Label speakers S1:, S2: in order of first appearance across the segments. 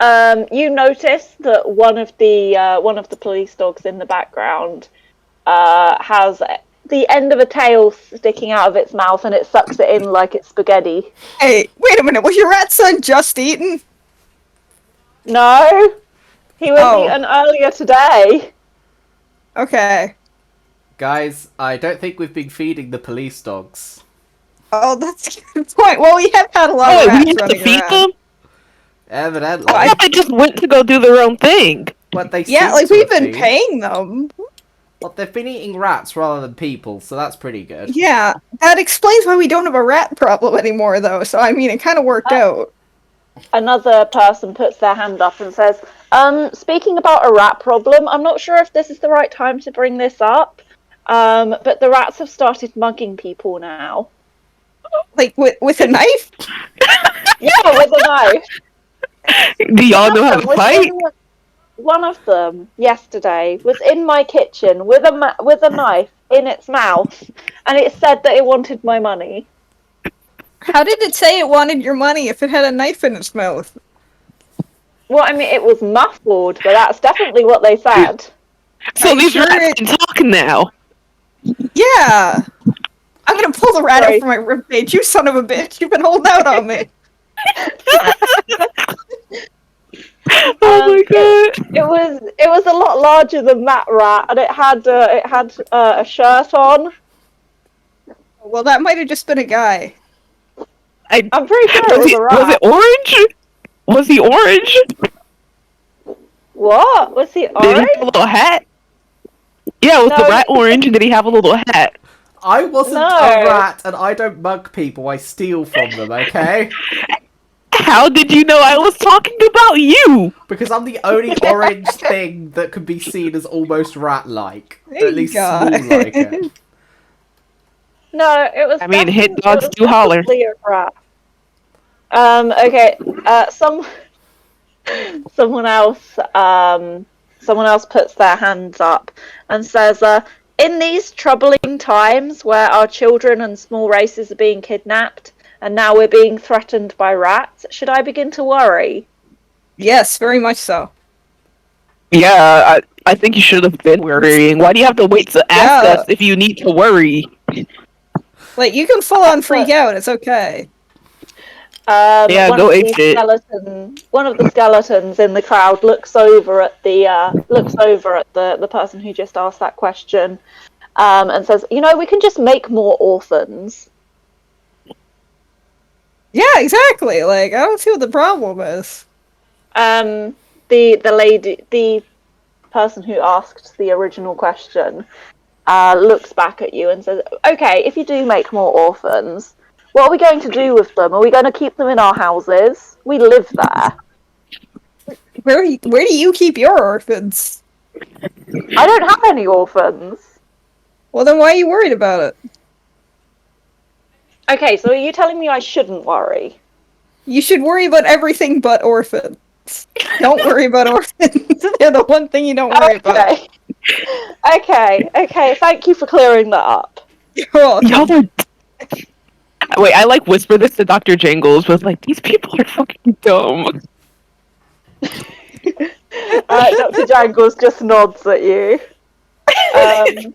S1: Um, you notice that one of the uh, one of the police dogs in the background uh, has the end of a tail sticking out of its mouth, and it sucks it in like it's spaghetti.
S2: Hey, wait a minute. Was your rat son just eaten?
S1: No, he was
S2: Oh.
S1: eaten earlier today.
S2: Okay.
S3: Guys, I don't think we've been feeding the police dogs.
S2: Oh, that's a good point. Well, we have had a lot
S4: Oh,
S2: of
S4: we
S2: rats
S4: have to
S2: running
S4: feed
S2: around.
S4: them?
S3: Evidently,
S2: Oh,
S4: I thought they just went to go do their own thing.
S3: what they
S2: Yeah,
S3: seem
S2: like
S3: to
S2: we've
S3: have
S2: been paying them.
S3: Well, they've been eating rats rather than people, so that's pretty good.
S2: Yeah, that explains why we don't have a rat problem anymore, though. So I mean, it kind of worked out.
S1: Another person puts their hand up and says, um, "Speaking about a rat problem, I'm not sure if this is the right time to bring this up, um, but the rats have started mugging people now.
S2: Like with with a knife.
S1: Yeah, with a knife."
S4: Do y'all know how to
S1: was
S4: fight?
S1: in- One of them yesterday was in my kitchen with a ma- with a knife in its mouth, and it said that it wanted my money.
S2: How did it say it wanted your money if it had a knife in its mouth?
S1: Well, I mean, it was muffled, but that's definitely what they said.
S4: So
S2: Are you
S4: these
S2: sure
S4: rats
S2: it-
S4: can talk now.
S2: Yeah. I'm gonna pull the rat out
S1: Sorry.
S2: from my ribcage. You son of a bitch! You've been holding out on me.
S4: Oh
S1: Um,
S4: my god.
S1: It was it was a lot larger than that rat, and it had uh, it had uh, a shirt on.
S2: Well, that might have just been a guy.
S4: I,
S2: Oh,
S1: I'm pretty sure it
S4: was,
S1: was
S4: he,
S1: a rat.
S4: was it orange? Was he orange?
S1: What was he
S4: Did he
S1: orange?
S4: have a little hat? Yeah, was
S1: No,
S4: the rat
S1: he-
S4: orange and did he have a little hat?
S3: I wasn't a
S1: No.
S3: rat, and I don't mug people. I steal from them, okay?
S4: How did you know I was talking about you?
S3: because I'm the only orange thing that could be seen as almost rat-like,
S2: There
S3: at
S2: you
S3: least
S2: go.
S3: small-like. it.
S1: No, it was.
S4: I mean, hit
S1: definitely-
S4: dogs
S1: it was
S4: do holler.
S1: definitely a rat. Um. Okay. Uh. Some. Someone else. Um. Someone else puts their hands up and says, uh, "In these troubling times where our children and small races are being kidnapped, and now we're being threatened by rats, should I begin to worry?"
S2: Yes, very much so.
S4: Yeah, I, I think you should have been worrying. Why do you have to wait to ask
S2: Yeah.
S4: us if you need to worry?
S2: Like you can full on freak out. It's okay.
S1: Um,
S4: Yeah,
S1: one
S4: go
S1: of
S4: ape
S1: the
S4: shit.
S1: skeleton, One of the skeletons in the crowd looks over at the uh, looks over at the, the person who just asked that question, um, and says, "You know, we can just make more orphans."
S2: Yeah, exactly. Like I don't see what the problem is.
S1: Um, the the lady, the person who asked the original question, uh, looks back at you and says, "Okay, if you do make more orphans, what are we going to do with them? Are we going to keep them in our houses? We live there."
S2: Where you- where do you keep your orphans?
S1: I don't have any orphans.
S2: Well, then why are you worried about it?
S1: Okay, so are you telling me I shouldn't worry?
S2: You should worry about everything but orphans. Don't worry about orphans. They're the one thing you don't worry about.
S1: Okay. okay, okay, thank you for clearing that up.
S2: You're welcome.
S4: Y'all are. Wait, I like whisper this to Dr. Jangles was like, these people are fucking dumb.
S1: Uh, Dr. Jangles just nods at you. Um,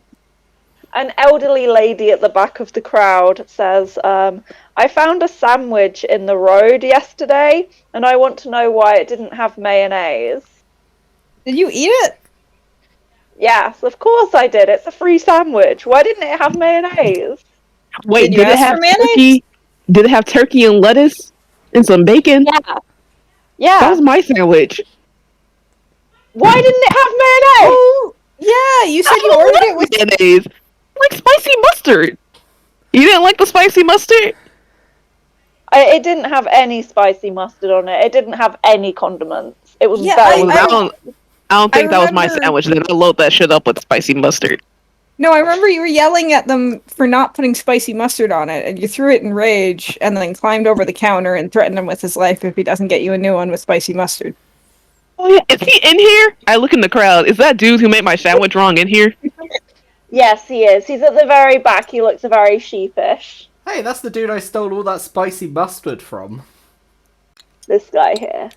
S1: an elderly lady at the back of the crowd says, um, I found a sandwich in the road yesterday, and I want to know why it didn't have mayonnaise.
S2: Did you eat it?
S1: Yes, of course I did. It's a free sandwich. Why didn't it have mayonnaise?
S4: Wait,
S2: Did
S4: did,
S2: you
S4: it
S2: ask
S4: have
S2: for mayonnaise?
S4: turkey? Did it have turkey and lettuce and some bacon?
S1: Yeah.
S4: That
S1: Yeah.
S4: was my sandwich.
S1: Why didn't it have mayonnaise?
S2: Oh, yeah. You said you ordered it with.
S4: mayonnaise. I Like spicy mustard. You didn't like the spicy mustard?
S1: I, it didn't have any spicy mustard on it. It didn't have any condiments. It was
S2: Yeah,
S4: I,
S1: very.
S2: I-
S1: bland.
S4: don't, I don't
S2: I
S4: think that was my
S2: remember-
S4: sandwich. Then I load that shit up with spicy mustard.
S2: No, I remember you were yelling at them for not putting spicy mustard on it, and you threw it in rage, and then climbed over the counter and threatened him with his life if he doesn't get you a new one with spicy mustard.
S4: Oh yeah, is he in here? I look in the crowd. Is that dude who made my sandwich wrong in here?
S1: yes, he is. He's at the very back. He looks very sheepish.
S3: Hey, that's the dude I stole all that spicy mustard from.
S1: This guy here.